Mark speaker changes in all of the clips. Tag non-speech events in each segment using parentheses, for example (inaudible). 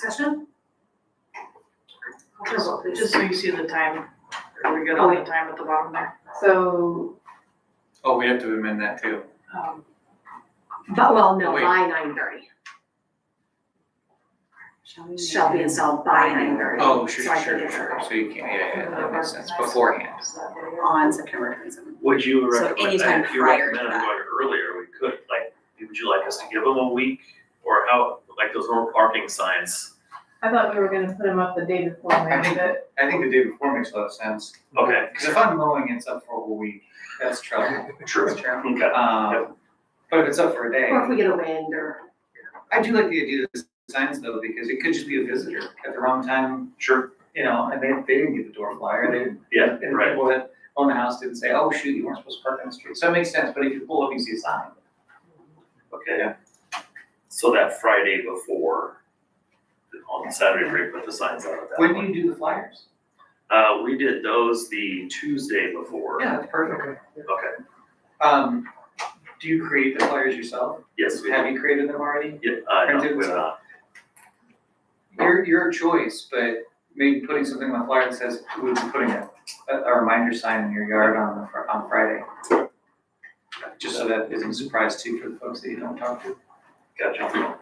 Speaker 1: Discussion? Call for vote, please.
Speaker 2: Just so you see the time, are we good
Speaker 3: Oh.
Speaker 2: on the time at the bottom there?
Speaker 4: So,
Speaker 5: Oh, we have to amend that too.
Speaker 2: Um,
Speaker 1: But, well, no,
Speaker 5: Wait.
Speaker 1: by nine thirty,
Speaker 4: shall we?
Speaker 1: shall be installed by nine thirty.
Speaker 5: Oh, sure, sure, sure. So you can't, yeah, yeah, that makes sense beforehand.
Speaker 4: On September twenty-seventh.
Speaker 6: Would you
Speaker 4: So
Speaker 6: recommend,
Speaker 4: anytime
Speaker 6: if you
Speaker 4: prior to
Speaker 6: recommended
Speaker 4: that.
Speaker 6: going earlier, we could, like, would you like us to give them a week? Or how, like those little parking signs?
Speaker 3: I thought we were gonna put them up the day before,
Speaker 5: I
Speaker 3: maybe,
Speaker 5: think-
Speaker 3: but
Speaker 5: I think the day before makes a lot of sense.
Speaker 6: Okay,
Speaker 5: Because if I'm mowing, it's up for a whole week. That's trouble.
Speaker 6: true. Okay,
Speaker 5: Um, but if it's up
Speaker 1: Or
Speaker 5: for a
Speaker 1: if
Speaker 5: day,
Speaker 1: we get a wind or,
Speaker 5: I do like the idea of the signs though, because it could just be a visitor at the wrong time,
Speaker 6: sure.
Speaker 5: you know, and they, they didn't get the door flyer. They, didn't-
Speaker 6: Yeah,
Speaker 5: and the
Speaker 6: right.
Speaker 5: people that own the house didn't say, oh, shoot, you weren't supposed to park on the street. So it makes sense, but if you pull up, you see a sign.
Speaker 6: Okay. So that Friday before, on Saturday break, put the signs out at that
Speaker 5: When do
Speaker 6: point.
Speaker 5: you do the flyers?
Speaker 6: Uh, we did those the Tuesday before.
Speaker 5: Yeah, that's perfect.
Speaker 6: Okay,
Speaker 5: Um, do you create the flyers yourself?
Speaker 6: yes, we
Speaker 5: Have
Speaker 6: did.
Speaker 5: you created them already?
Speaker 6: Yeah, uh, no,
Speaker 5: Printed
Speaker 6: we
Speaker 5: and
Speaker 6: have not.
Speaker 5: Your, your choice, but maybe putting something on the flyer that says, we'll be putting a, a reminder sign in your yard on, the fr- on Friday. Just so that isn't a surprise too for the folks that you don't talk to.
Speaker 6: Gotcha.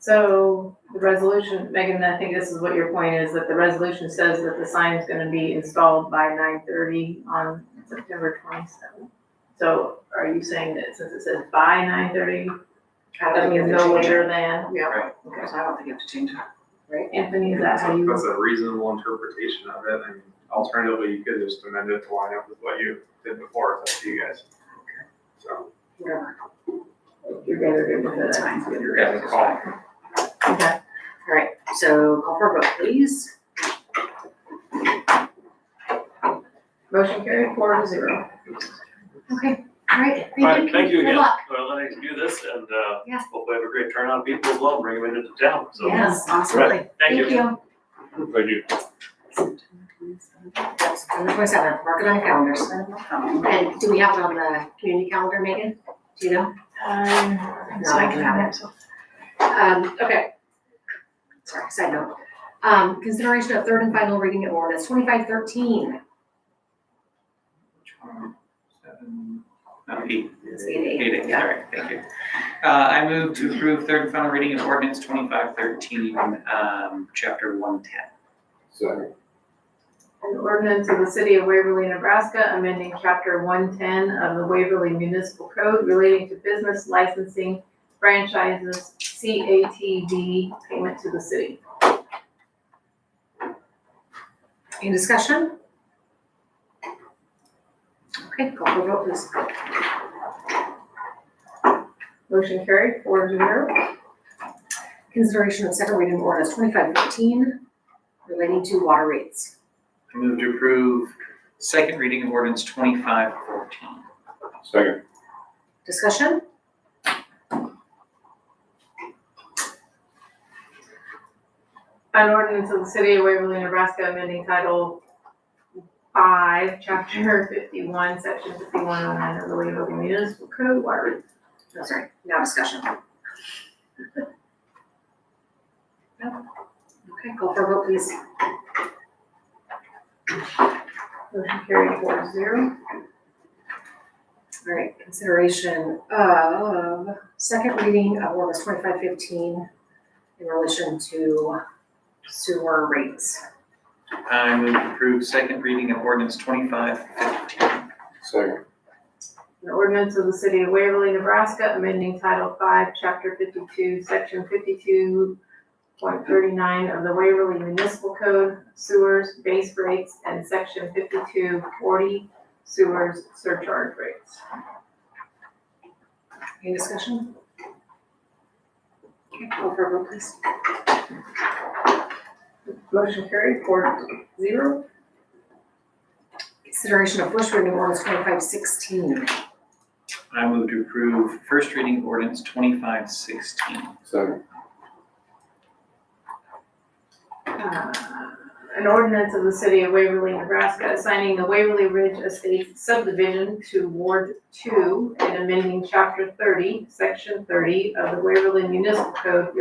Speaker 3: so the resolution, Megan, I think this is what your point is, that the resolution says that the sign is gonna be installed by nine thirty on September twenty-seventh. So are you saying that since it says by nine thirty,
Speaker 1: I
Speaker 3: that
Speaker 1: don't think
Speaker 3: means
Speaker 1: you have to
Speaker 3: no
Speaker 1: change it.
Speaker 3: later than?
Speaker 5: Right.
Speaker 1: Okay, so I don't think you have to change it.
Speaker 3: Anthony, is that how you?
Speaker 7: That's a reasonable interpretation of it, and alternatively, you could just amend it to line up with what you did before, it's up to you guys. So,
Speaker 1: Whatever.
Speaker 3: You're better good with
Speaker 1: That's
Speaker 3: it.
Speaker 1: fine.
Speaker 5: Yeah, it's fine.
Speaker 3: Okay,
Speaker 1: All right, so call for vote, please.
Speaker 3: motion carried four to zero.
Speaker 1: Okay, all right,
Speaker 6: All right,
Speaker 1: thank you.
Speaker 6: thank you
Speaker 1: Good
Speaker 6: again.
Speaker 1: luck.
Speaker 6: Well, let's do this and, uh,
Speaker 1: Yeah.
Speaker 6: hopefully have a great turnout. People love bringing them into town, so.
Speaker 1: Yes, absolutely.
Speaker 6: Thank you.
Speaker 1: you.
Speaker 6: Thank you.
Speaker 1: Yep, September twenty-seventh, mark it on your calendars. And do we have it on the community calendar, Megan? Do you know? No, Um, I can have
Speaker 3: it.
Speaker 1: Um, okay. Sorry, side note. Um, consideration of third and final reading of ordinance twenty-five thirteen.
Speaker 5: Which one? Seven, no, eight.
Speaker 1: It's eight eight,
Speaker 5: Eight, eight,
Speaker 1: yeah.
Speaker 5: all right, thank you. Uh, I move to approve third and final reading of ordinance twenty-five thirteen, um, chapter one ten.
Speaker 7: so,
Speaker 3: An ordinance of the city of Waverly, Nebraska, amending chapter one-ten of the Waverly Municipal Code relating to business licensing franchises, CATV payment to the city.
Speaker 1: Any discussion? Okay, call for vote, please.
Speaker 3: Motion carried, four to zero.
Speaker 1: Consideration of second reading of ordinance twenty-five fifteen relating to water rates.
Speaker 5: I move to approve second reading of ordinance twenty-five fourteen.
Speaker 7: second,
Speaker 1: Discussion?
Speaker 3: An ordinance of the city of Waverly, Nebraska, amending title five, chapter fifty-one, section fifty-one oh nine of the Waverly Municipal Code, water rates.
Speaker 1: No, sorry, now discussion. (laughs) No? Okay, call for vote, please.
Speaker 3: Motion carried, four to zero.
Speaker 1: All right, consideration of second reading of ordinance twenty-five fifteen in relation to sewer rates.
Speaker 5: I move to approve second reading of ordinance twenty-five fifteen.
Speaker 7: second,
Speaker 3: An ordinance of the city of Waverly, Nebraska, amending Title Five, Chapter fifty-two, Section fifty-two point thirty-nine of the Waverly Municipal Code, sewers, base rates, and Section fifty-two forty, sewers, surcharge rates.
Speaker 1: Any discussion? Okay, call for vote, please.
Speaker 3: Motion carried, four to zero.
Speaker 1: Consideration of first reading of ordinance twenty-five sixteen.
Speaker 5: I move to approve first reading of ordinance twenty-five sixteen.
Speaker 7: second,
Speaker 3: Uh, An ordinance of the city of Waverly, Nebraska, assigning the Waverly Ridge Estates subdivision to Ward Two and amending Chapter thirty, Section thirty of the Waverly Municipal Code